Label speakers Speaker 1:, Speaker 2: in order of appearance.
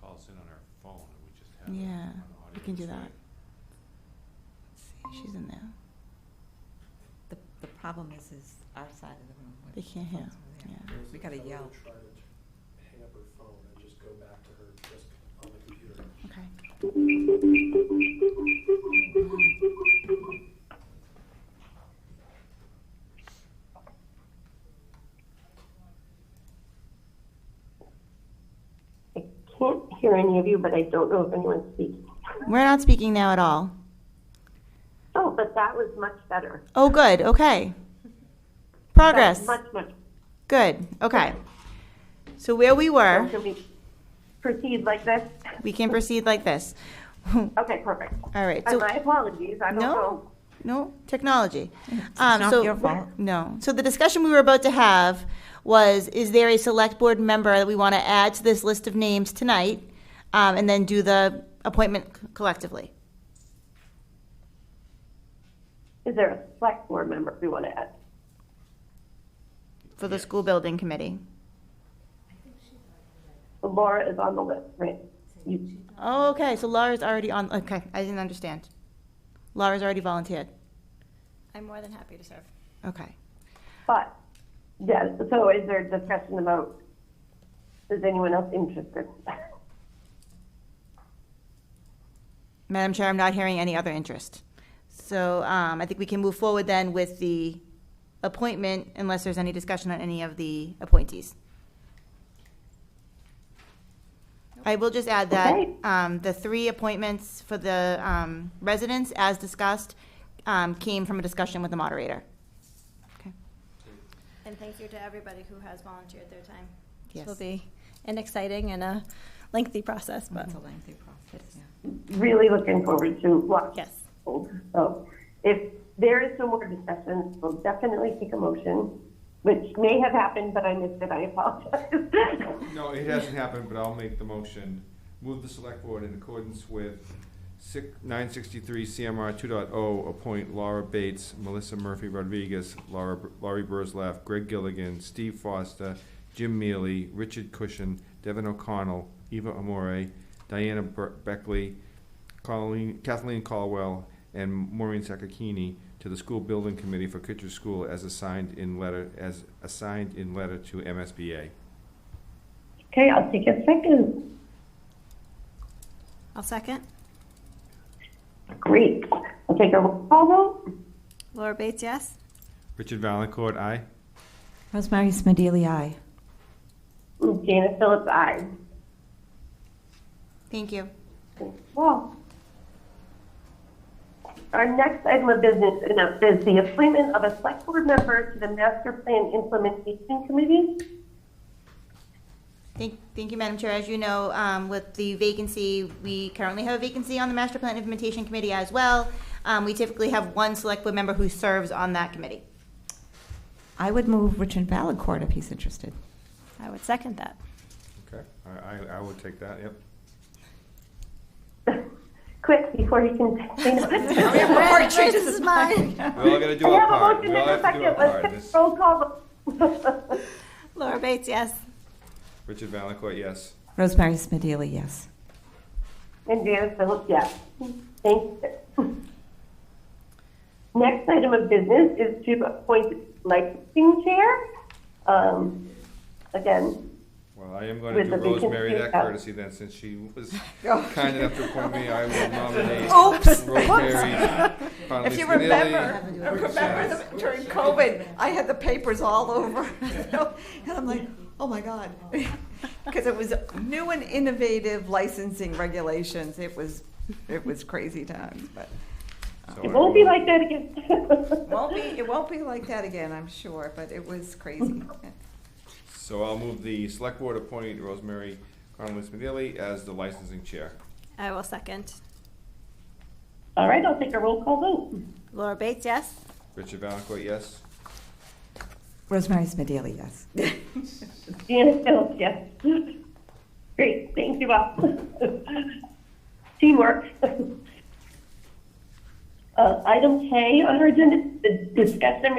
Speaker 1: calls in on our phone and we just have it on
Speaker 2: Yeah,
Speaker 1: audio.
Speaker 2: we can do
Speaker 1: It's
Speaker 2: that.
Speaker 1: like-
Speaker 2: She's in there.
Speaker 3: The, the problem is, is our side of the room. where
Speaker 2: They
Speaker 3: the
Speaker 2: can't hear,
Speaker 3: phones were there.
Speaker 2: yeah.
Speaker 4: There's
Speaker 3: We
Speaker 4: a
Speaker 3: gotta
Speaker 4: fellow who
Speaker 3: yell.
Speaker 4: tried to hang up her phone and just go back to her just on the computer.
Speaker 2: Okay.
Speaker 5: I can't hear any of you, but I don't know if anyone's speaking.
Speaker 2: We're not speaking now at all.
Speaker 5: Oh, but that was much better.
Speaker 2: Oh, good. Okay. Progress.
Speaker 5: That was Much, much.
Speaker 2: Good. Okay. So where we were,
Speaker 5: Can we proceed like this?
Speaker 2: we can proceed like this. All
Speaker 5: Okay, perfect.
Speaker 2: right.
Speaker 5: And
Speaker 2: So
Speaker 5: my apologies, I don't
Speaker 2: No.
Speaker 5: know.
Speaker 2: no technology.
Speaker 3: It's
Speaker 2: Um,
Speaker 3: not
Speaker 2: so-
Speaker 3: your fault.
Speaker 2: No. So the discussion we were about to have was, is there a select board member that we want to add to this list of names tonight? Um, and then do the appointment c- collectively.
Speaker 5: Is there a select board member we want to add?
Speaker 2: for the school building committee.
Speaker 5: Laura is on the list, right? You-
Speaker 2: Oh, okay, so Laura's already on, okay, I didn't understand. Laura's already volunteered,
Speaker 6: I'm more than happy to serve.
Speaker 2: okay.
Speaker 5: But, yeah, so is there discussion about, is anyone else interested?
Speaker 2: Madam Chair, I'm not hearing any other interest. So um, I think we can move forward then with the appointment unless there's any discussion on any of the appointees. I will just add that
Speaker 5: Okay.
Speaker 2: um, the three appointments for the um, residents, as discussed, um, came from a discussion with the moderator. Okay.
Speaker 6: And thank you to everybody who has volunteered their time. This
Speaker 2: Yes.
Speaker 6: will be an exciting and a lengthy process, but
Speaker 3: It's a lengthy process, yeah.
Speaker 5: Really looking forward to lots
Speaker 6: yes.
Speaker 5: So if there is some more discussion, we'll definitely take a motion, which may have happened, but I missed it, I apologize.
Speaker 1: No, it hasn't happened, but I'll make the motion. Move the select board in accordance with six, nine sixty-three CMR two oh, appoint Laura Bates, Melissa Murphy Rodriguez, Laura, Laurie Burzlaff, Greg Gilligan, Steve Foster, Jim Mealy, Richard Cushion, Devin O'Connell, Eva Amore, Diana Ber- Beckley, Colleen, Kathleen Caldwell, and Maureen Sakakini to the school building committee for Kitcher School as assigned in letter, as assigned in letter to MSBA.
Speaker 5: Okay, I'll take a second.
Speaker 6: I'll second.
Speaker 5: Great. I'll take a roll call vote.
Speaker 6: Laura Bates, yes?
Speaker 1: Richard Valencourt, aye.
Speaker 3: Rosemary Smedili, aye.
Speaker 5: Jana Phillips, aye.
Speaker 2: Thank you.
Speaker 5: Well, our next item of business enough is the appointment of a select board member to the master plan implementation committee.
Speaker 2: Thank, thank you, Madam Chair. As you know, um, with the vacancy, we currently have a vacancy on the Master Plan Implementation Committee as well. Um, we typically have one select board member who serves on that committee.
Speaker 3: I would move Richard Valencourt if he's interested.
Speaker 6: I would second that.
Speaker 1: Okay, I, I, I would take that, yep.
Speaker 5: Quick, before he can.
Speaker 6: This is mine.
Speaker 1: We all gotta do
Speaker 5: I
Speaker 1: our
Speaker 5: have a
Speaker 1: part.
Speaker 5: motion
Speaker 1: We
Speaker 5: in
Speaker 1: all
Speaker 5: a
Speaker 1: have to do our
Speaker 5: second.
Speaker 1: part.
Speaker 5: Let's
Speaker 1: This-
Speaker 5: take a roll call vote.
Speaker 6: Laura Bates, yes.
Speaker 1: Richard Valancourt, yes.
Speaker 3: Rosemary Smedili, yes.
Speaker 5: And Janice Phillips, yes. Thank you. Next item of business is to appoint licensing chair. Um, Again,
Speaker 1: Well, I am gonna
Speaker 5: With
Speaker 1: do
Speaker 5: the vacancy
Speaker 1: Rosemary that
Speaker 5: out. Oh.
Speaker 1: courtesy then, since she was kind enough to appoint me, I will nominate
Speaker 7: Oh. Oops.
Speaker 1: Rosemary.
Speaker 7: If you
Speaker 1: Conley-Spinelli.
Speaker 7: remember, remember the- during COVID, I had the papers all over, and I'm like, oh my God. Because it was new and innovative licensing regulations, it was, it was crazy times, but
Speaker 1: So
Speaker 5: it
Speaker 1: I
Speaker 5: won't be
Speaker 1: will-
Speaker 5: like that again.
Speaker 7: won't be, it won't be like that again, I'm sure, but it was crazy.
Speaker 1: So I'll move the select board appoint Rosemary Conley Smedili as the licensing chair.
Speaker 6: I will second.
Speaker 5: All right, I'll take a roll call vote.
Speaker 6: Laura Bates, yes?
Speaker 1: Richard Valancourt, yes.
Speaker 3: Rosemary Smedili, yes.
Speaker 5: Janice Phillips, yes. Great, thank you all. Teamwork. Uh, Item K on our agenda, is the discussion